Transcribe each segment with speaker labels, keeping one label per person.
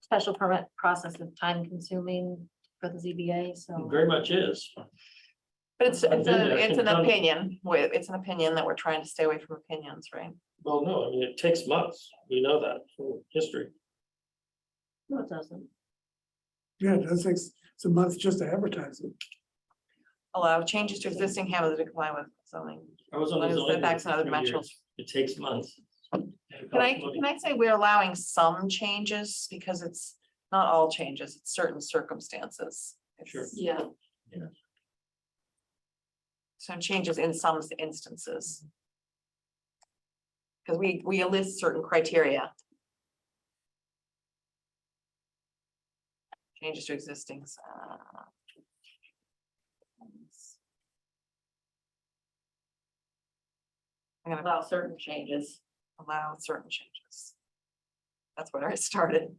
Speaker 1: special permit process is time consuming for the ZBA,
Speaker 2: Oh.
Speaker 1: so.
Speaker 3: Very much is.
Speaker 4: But it's,
Speaker 3: I've
Speaker 4: it's,
Speaker 3: been there,
Speaker 4: a- it's an
Speaker 3: I've done it.
Speaker 4: opinion, we- it's an opinion that we're trying to stay away from opinions, right?
Speaker 3: Well, no, I mean, it takes months. We know that from history.
Speaker 1: No, it doesn't.
Speaker 5: Yeah, it does take s- some months just to advertise it.
Speaker 4: Allow changes to existing hamlets to comply with zoning.
Speaker 3: I was on the
Speaker 4: What is
Speaker 3: zoning. board
Speaker 4: setbacks
Speaker 3: for
Speaker 4: and other
Speaker 3: three years.
Speaker 4: dimensionals?
Speaker 3: It takes months.
Speaker 4: Can I, can I say we're allowing some changes because it's not all changes, it's certain circumstances.
Speaker 3: Sure.
Speaker 4: It's
Speaker 1: Yeah.
Speaker 4: Some changes in some instances. Because we, we list certain criteria. Changes to existing. uh, I'm gonna
Speaker 1: Allow certain changes.
Speaker 4: allow certain changes. That's where I started.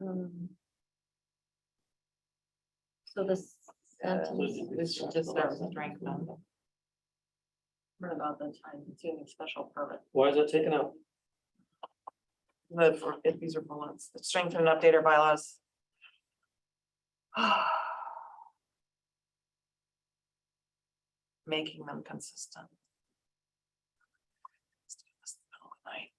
Speaker 1: Um, So this.
Speaker 4: Uh,
Speaker 1: sentence-
Speaker 4: We should just start with drink them.
Speaker 1: What about the time consuming special permit?
Speaker 3: Why is that taken out?
Speaker 4: The, for- if these are bullets, strengthen and update our bylaws. Making them consistent. Let's do this in the middle of the night.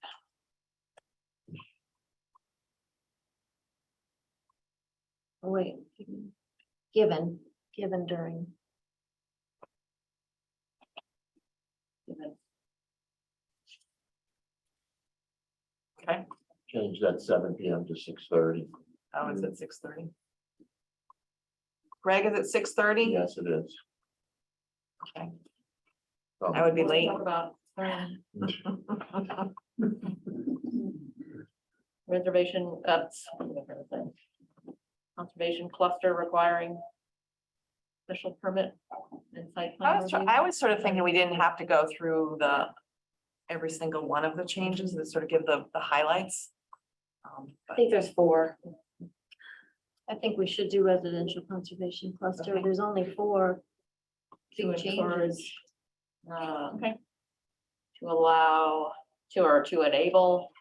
Speaker 1: Oh, wait. Given, given during. Given.
Speaker 6: change that seven P M to six thirty.
Speaker 4: Oh, it's at six thirty. Greg, is it six thirty?
Speaker 6: Yes, it is.
Speaker 4: Okay.
Speaker 6: Um,
Speaker 4: I would be late.
Speaker 1: What About um, reservation, that's a different thing. Conservation cluster requiring. Special permit and site
Speaker 4: I
Speaker 1: plan
Speaker 4: was, tr-
Speaker 1: review.
Speaker 4: I was sort of thinking we didn't have to go through the, every single one of the changes, and sort of give the, the highlights. Um,
Speaker 1: I
Speaker 4: but
Speaker 1: think there's four. I think we should do residential conservation cluster.
Speaker 4: Okay.
Speaker 1: There's only four.
Speaker 2: to
Speaker 1: Big changes.
Speaker 2: encourage. uh,
Speaker 4: Okay.
Speaker 2: To allow, to or to enable.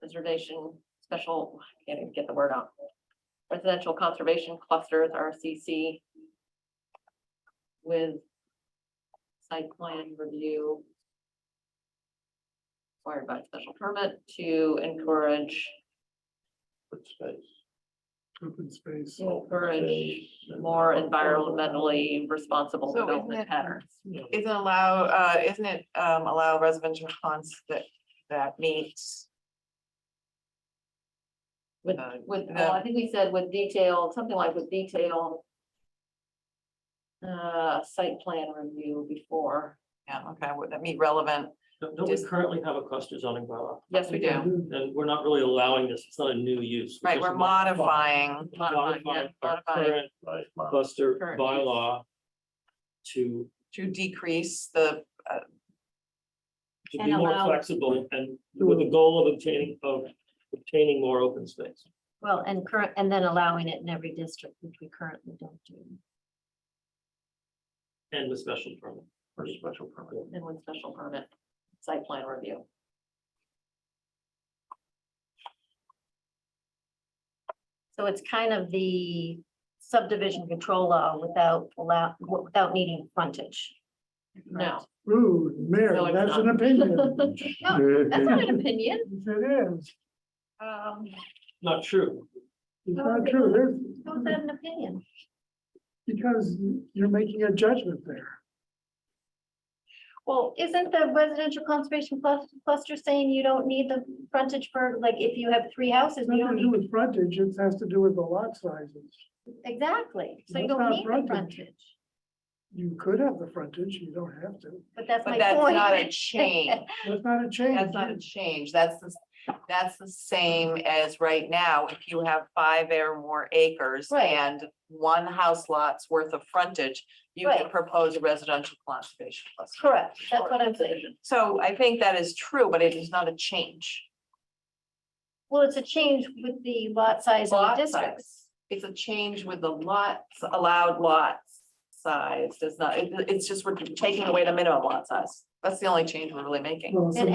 Speaker 2: Preservation, special, I can't even get the word out. Residential conservation clusters, RCC. With. Site plan review. Required by special permit to encourage,
Speaker 6: open space.
Speaker 5: Open space.
Speaker 2: to encourage
Speaker 6: space and-
Speaker 2: more environmentally responsible
Speaker 4: So isn't
Speaker 2: development
Speaker 4: it-
Speaker 2: patterns.
Speaker 4: Isn't allow, uh, isn't it, um, allow residential funds that, that meets?
Speaker 2: With,
Speaker 4: Uh,
Speaker 2: with,
Speaker 4: and
Speaker 2: well, I
Speaker 4: then-
Speaker 2: think we said with detail, something like with detail. Uh, site plan review before,
Speaker 4: Yeah, okay, would that meet relevant?
Speaker 3: Don't don't we
Speaker 4: Just-
Speaker 3: currently have a cluster zoning bylaw?
Speaker 2: yes, we do.
Speaker 3: And we're not really allowing this. It's not a new use.
Speaker 4: Right, we're
Speaker 3: just
Speaker 4: modifying.
Speaker 2: Modifying, yeah,
Speaker 3: Modifying our
Speaker 2: modifying.
Speaker 3: current
Speaker 6: Right, my-
Speaker 3: cluster
Speaker 2: Current use.
Speaker 3: bylaw to
Speaker 4: to decrease the,
Speaker 3: to
Speaker 1: And
Speaker 3: be more
Speaker 1: allow-
Speaker 3: flexible and with the goal of obtaining, of obtaining more open space.
Speaker 1: Well, and current, and then allowing it in every district, which we currently don't do.
Speaker 3: And the special permit.
Speaker 6: for special permit.
Speaker 2: And with special permit, site plan review.
Speaker 1: So it's kind of the subdivision control law without allow, without needing frontage.
Speaker 2: No,
Speaker 5: Ooh, Mayor,
Speaker 2: No, it's
Speaker 5: that's an
Speaker 2: not.
Speaker 5: opinion.
Speaker 1: That's not an opinion.
Speaker 5: Yes, It is.
Speaker 4: um,
Speaker 3: Not true.
Speaker 5: It's
Speaker 1: No,
Speaker 5: not
Speaker 1: it's
Speaker 5: true.
Speaker 1: not.
Speaker 5: There's,
Speaker 1: How is that an opinion?
Speaker 5: because you're making a judgment there.
Speaker 4: well,
Speaker 1: Isn't the residential conservation clus- cluster saying you don't need the frontage for, like, if you have three houses,
Speaker 5: It's
Speaker 1: you don't
Speaker 5: nothing to do
Speaker 1: need,
Speaker 5: with frontage. It has to do with the lot sizes.
Speaker 1: exactly, so you
Speaker 5: That's
Speaker 1: don't
Speaker 5: not
Speaker 1: need the
Speaker 5: frontage.
Speaker 1: frontage.
Speaker 5: You could have the frontage. You don't have to.
Speaker 1: But that's my
Speaker 4: but that's not a
Speaker 1: point.
Speaker 4: change.
Speaker 5: That's not a change.
Speaker 4: That's not a change, that's, the s- that's the same as right now, if you have five or more acres
Speaker 1: Right.
Speaker 4: and one house lot's worth of frontage, you can
Speaker 1: Right.
Speaker 4: propose a residential conservation cluster.
Speaker 1: Correct, that's what I'm saying.
Speaker 4: So I think that is true, but it is not a change.
Speaker 1: Well, it's a change with the lot size of the
Speaker 4: Lot
Speaker 1: districts.
Speaker 4: size. It's a change with the lots, allowed lot size, does not, it- it's just we're taking away the minimum lot size. That's the only change we're really making.
Speaker 5: Well, it's a
Speaker 1: And